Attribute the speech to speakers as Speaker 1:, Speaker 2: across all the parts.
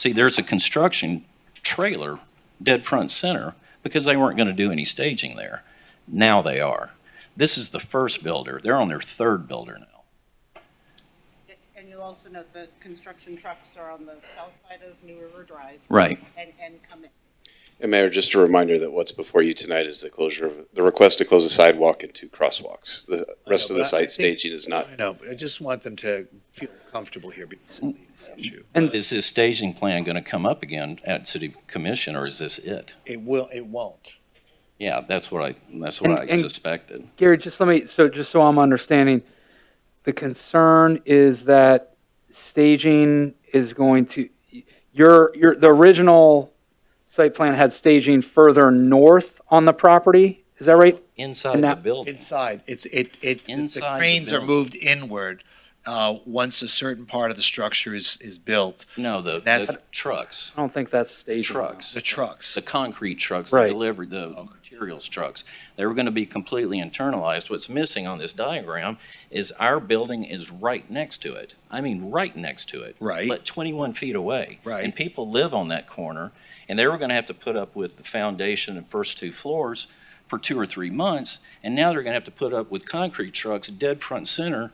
Speaker 1: See, there's a construction trailer dead front center because they weren't going to do any staging there. Now they are. This is the first builder. They're on their third builder now.
Speaker 2: And you'll also note the construction trucks are on the south side of New River Drive
Speaker 1: Right.
Speaker 2: and, and come in.
Speaker 3: And Mayor, just a reminder that what's before you tonight is the closure of, the request to close a sidewalk and two crosswalks. The rest of
Speaker 4: but
Speaker 3: the site
Speaker 4: I- I think-
Speaker 3: staging is not
Speaker 4: I know, but I just want them to feel comfortable here because of this issue.
Speaker 1: And is this staging plan going to come up again at city commission or is this it?
Speaker 4: It will, it won't.
Speaker 1: Yeah, that's what I, that's what
Speaker 5: And-
Speaker 1: I
Speaker 5: and-
Speaker 1: suspected.
Speaker 5: Gary, just let me, so just so I'm understanding, the concern is that staging is going to, your, your, the original site plan had staging further north on the property, is that right?
Speaker 1: Inside
Speaker 5: And
Speaker 1: the
Speaker 5: that-
Speaker 1: building.
Speaker 4: Inside, it's, it, it, the
Speaker 1: Inside the
Speaker 4: cranes are
Speaker 1: building.
Speaker 4: moved inward, uh, once a certain part of the structure is, is built,
Speaker 1: No, the,
Speaker 4: That's-
Speaker 1: the trucks,
Speaker 5: I don't think that's staging.
Speaker 1: trucks,
Speaker 4: the trucks.
Speaker 1: the concrete trucks, the
Speaker 5: Right.
Speaker 1: delivery, the materials trucks. They were going to be completely internalized. What's missing on this diagram is our building is right next to it. I mean, right next to it.
Speaker 4: Right.
Speaker 1: But 21 feet away.
Speaker 4: Right.
Speaker 1: And people live on that corner, and they were going to have to put up with the foundation and first two floors for two or three months, and now they're going to have to put up with concrete trucks dead front center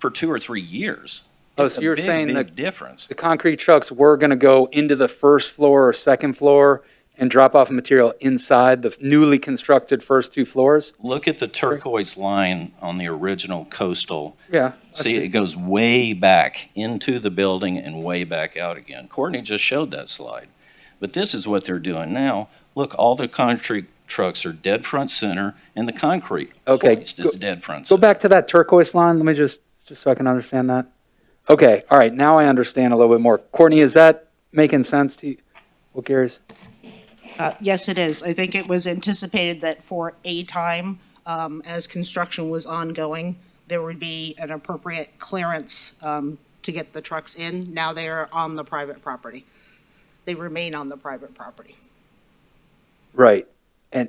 Speaker 1: for two or three years.
Speaker 5: Oh,
Speaker 1: It's
Speaker 5: so
Speaker 1: a
Speaker 5: you're
Speaker 1: big,
Speaker 5: saying
Speaker 1: big
Speaker 5: the,
Speaker 1: difference.
Speaker 5: the concrete trucks were gonna go into the first floor or second floor and drop off material inside the newly constructed first two floors?
Speaker 1: Look at the turquoise line on the original coastal
Speaker 5: Yeah. I
Speaker 1: See, it goes way back into the building and way back out again. Courtney just showed that slide. But this is what they're doing now. Look, all the concrete trucks are dead front center and the concrete
Speaker 5: Okay,
Speaker 1: hoist
Speaker 5: go-
Speaker 1: is dead front
Speaker 5: Go
Speaker 1: center.
Speaker 5: back to that turquoise line. Let me just, just so I can understand that. Okay, all right, now I understand a little bit more. Courtney, is that making sense to you? What Gary's?
Speaker 2: Uh, Yes, it is. I think it was anticipated that for a time, um, as construction was ongoing, there would be an appropriate clearance um, to get the trucks in. Now they are on the private property. They remain on the private property.
Speaker 5: Right. And,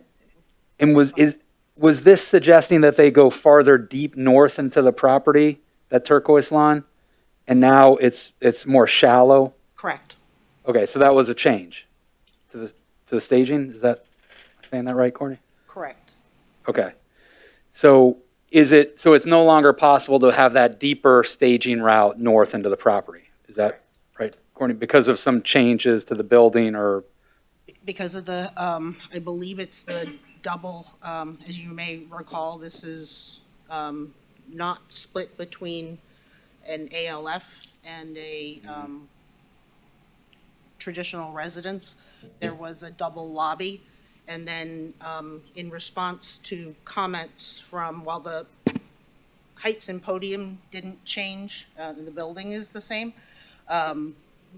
Speaker 5: and was, is, was this suggesting that they go farther deep north into the property, that turquoise line? And now it's, it's more shallow?
Speaker 2: Correct.
Speaker 5: Okay, so that was a change to the, to the staging? Is that, saying that right, Courtney?
Speaker 2: Correct.
Speaker 5: Okay. So is it, so it's no longer possible to have that deeper staging route north into the property? Is that right, Courtney? Because of some changes to the building or,
Speaker 2: Because of the, um, I believe it's the double, um, as you may recall, this is um, not split between an ALF and a um, traditional residence. There was a double lobby. And then um, in response to comments from, while the heights and podium didn't change, uh, the building is the same,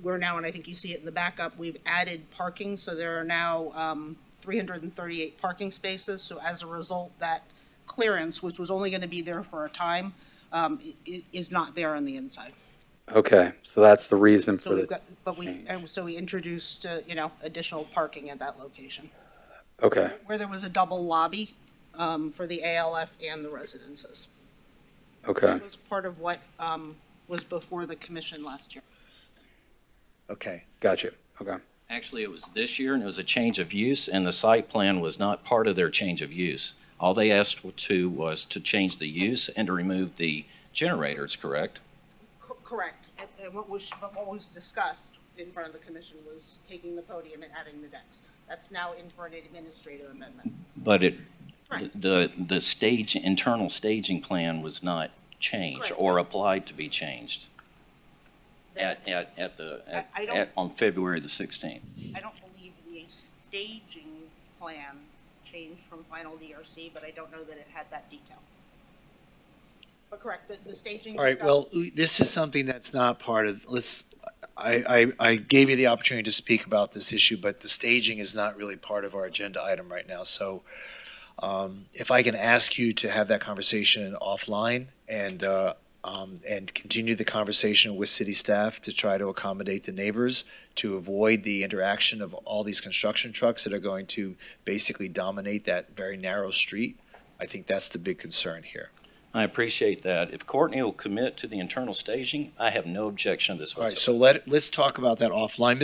Speaker 2: we're now, and I think you see it in the backup, we've added parking, so there are now um, 338 parking spaces. So as a result, that clearance, which was only going to be there for a time, um, i- i- is not there on the inside.
Speaker 5: okay, so that's the reason
Speaker 2: So
Speaker 5: for
Speaker 2: we've
Speaker 5: the,
Speaker 2: got, but we, and so we introduced, uh, you know, additional parking at that location,
Speaker 5: okay,
Speaker 2: where there was a double lobby um, for the ALF and the residences.
Speaker 5: okay.
Speaker 2: It was part of what um, was before the commission last year.
Speaker 4: Okay,
Speaker 5: Got you, okay.
Speaker 1: Actually, it was this year and it was a change of use and the site plan was not part of their change of use. All they asked to was to change the use and to remove the generators, correct?
Speaker 2: Co- Correct. And- And what was, but what was discussed in front of the commission was taking the podium and adding the decks. That's now in for an administrative amendment.
Speaker 1: But it,
Speaker 2: Correct.
Speaker 1: the, the stage, internal staging plan was not changed
Speaker 2: Correct.
Speaker 1: or applied to be changed. At, at, at the,
Speaker 2: I-
Speaker 1: at,
Speaker 2: I don't-
Speaker 1: at- on February the 16th.
Speaker 2: I don't believe the staging plan changed from final DRC, but I don't know that it had that detail. But correct, the, the staging.
Speaker 4: all right,
Speaker 2: discussed-
Speaker 4: well, this is something that's not part of, let's, I, I, I gave you the opportunity to speak about this issue, but the staging is not really part of our agenda item right now, so um, if I can ask you to have that conversation offline and, uh, um, and continue the conversation with city staff to try to accommodate the neighbors, to avoid the interaction of all these construction trucks that are going to basically dominate that very narrow street, I think that's the big concern here.
Speaker 1: I appreciate that. If Courtney will commit to the internal staging, I have no objection to this
Speaker 4: All right,
Speaker 1: whatsoever.
Speaker 4: so let, let's talk about that offline.